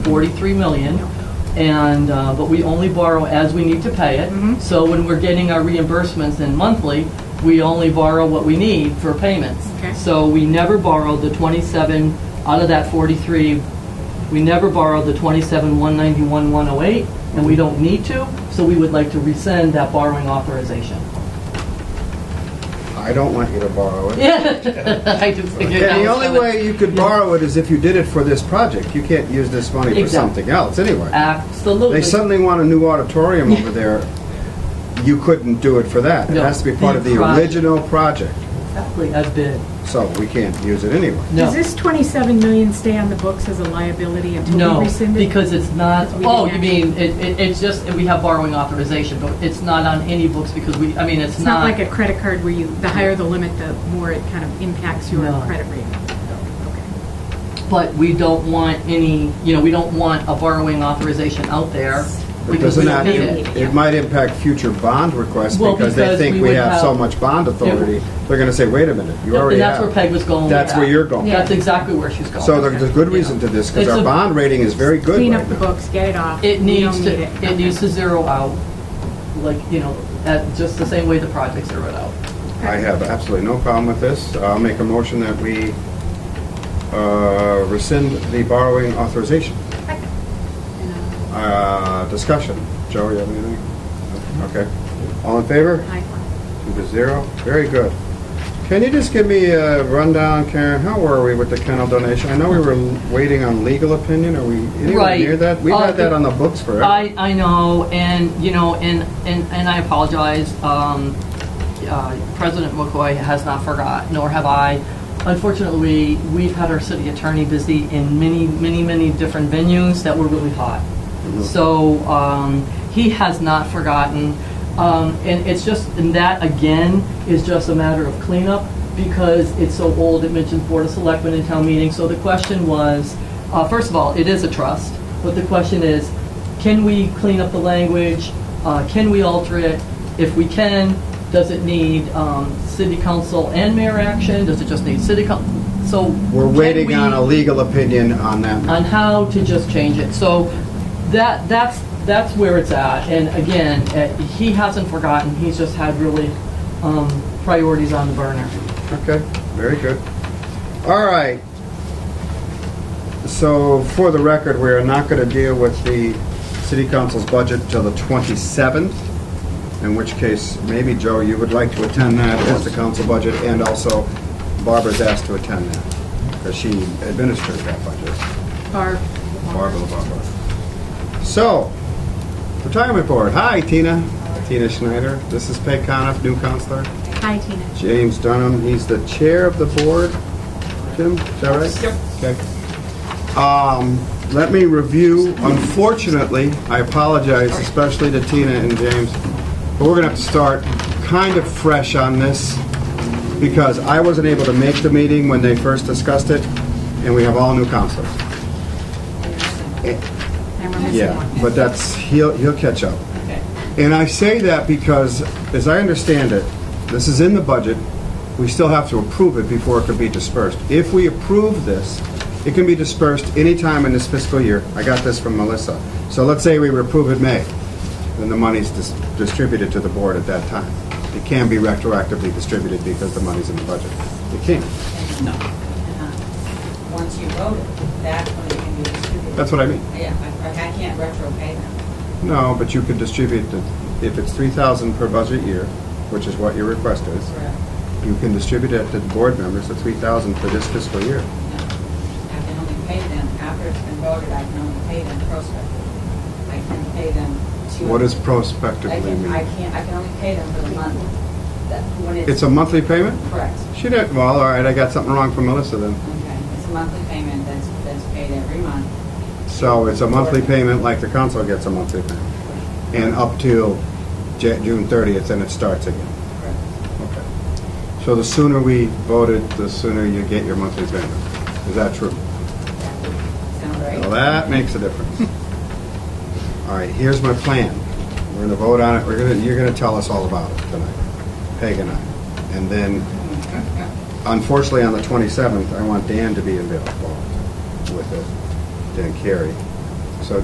43 million, and, uh, but we only borrow as we need to pay it. So when we're getting our reimbursements in monthly, we only borrow what we need for payments. Okay. So we never borrowed the 27, out of that 43, we never borrowed the 27, 191, 108, and we don't need to, so we would like to rescind that borrowing authorization. I don't want you to borrow it. I just figured that And the was only coming. way you could borrow it is if you did it for this project. You can't use this money for Exactly. something else anyway. Absolutely. They suddenly want a new auditorium over there. You couldn't do it for that. It No. has to be part of the The project. original project, Exactly, as bid. so we can't use it anyway. Does No, this 27 million stay on the books as a liability until no, we rescind it? because it's not, Because we oh, you didn't mean, it, it- it's just, we have borrowing authorization, but it's not on any books because we, I mean, it's It's not not. like a credit card where you, the higher the limit, the more it kind of impacts your No. credit rating. Okay. But we don't want any, you know, we don't want a borrowing authorization out there But because we doesn't don't that- need doesn't- it. It might impact future bond requests Well, because they because we think we would have so have- much bond authority. They're going to say, wait a minute, you And already that's where have. Peg was going with That's where that. you're going. That's exactly where she's going. So there's a good reason to this because It's our a- bond rating is very good Clean right up the now. books, get it off. It We don't needs to, need it needs to zero out, like, you know, at just the same way the projects zeroed out. I have absolutely no problem with this. I'll make a motion that we uh, rescind the borrowing authorization. Uh, Discussion. Joe, you have anything? Okay. All in favor? Hi. Two to zero. Very good. Can you just give me a rundown, Karen? How were we with the kennel donation? I know we were waiting on legal opinion. Are we anywhere Right. near that? We've Uh, had that on the books forever. I, I know, and, you know, and, and and I apologize. Um, uh, President McCoy has not forgot, nor have I. Unfortunately, we've had our city attorney busy in many, many, many different venues that were really hot. So um, he has not forgotten. Um, And it's just, and that, again, is just a matter of cleanup because it's so old. It mentions Board of Selectmen and town meeting. So the question was, uh, first of all, it is a trust, but the question is, can we clean up the language? Uh, Can we alter it? If we can, does it need um, city council and mayor action? Does it just need city council? So. We're can waiting on we- a legal opinion on that. on how to just change it. So that, that's, that's where it's at. And again, eh, he hasn't forgotten, he's just had really um, priorities on the burner. Okay, very good. All right. So for the record, we are not going to deal with the city council's budget till the 27th, in which case, maybe, Joe, you would like to attend that as the council budget, and also Barbara's asked to attend that, because she administers that budget, Barb. Barbara LaBarbera. So, retirement board, hi, Tina. Tina Schneider, this is Peg Coniff, new counselor. Hi, Tina. James Dunham, he's the chair of the board. Jim, is that right? Yep. Okay. Um, Let me review, unfortunately, I apologize especially to Tina and James, but we're gonna have to start kind of fresh on this because I wasn't able to make the meeting when they first discussed it, and we have all new counselors. And we're missing Yeah, one. but that's, he'll, he'll catch up. And I say that because, as I understand it, this is in the budget, we still have to approve it before it can be dispersed. If we approve this, it can be dispersed anytime in this fiscal year. I got this from Melissa. So let's say we approve it May, then the money's dis- distributed to the board at that time. It can be retroactively distributed because the money's in the budget. It can, uh, Once you vote it, that's when it can be distributed. that's what I mean. Yeah, I- like I can't retro pay them. No, but you could distribute, the- if it's 3,000 per budget year, which is what your request is, Correct. you can distribute it to the board members, the 3,000 for this fiscal year. I can only pay them after it's been voted, I can only pay them prospectively. I can pay them to. What does I prospectively can, I mean? can't, I can only pay them for the month. That, when it's. It's a monthly payment? Correct. She didn't, well, all right, I got something wrong from Melissa then. Okay, it's a monthly payment that's, that's paid every month. So it's a monthly payment like the council gets a monthly payment, and up till Ja- June 30th, and it starts again. Correct. Okay. So the sooner we voted, the sooner you get your monthly payment. Is that true? That would Sound right? Well, that makes a difference. All right, here's my plan. We're gonna vote on it, we're gonna, you're gonna tell us all about it tonight, Peg and I. And then, unfortunately, on the 27th, I want Dan to be involved with it, Dan Carey.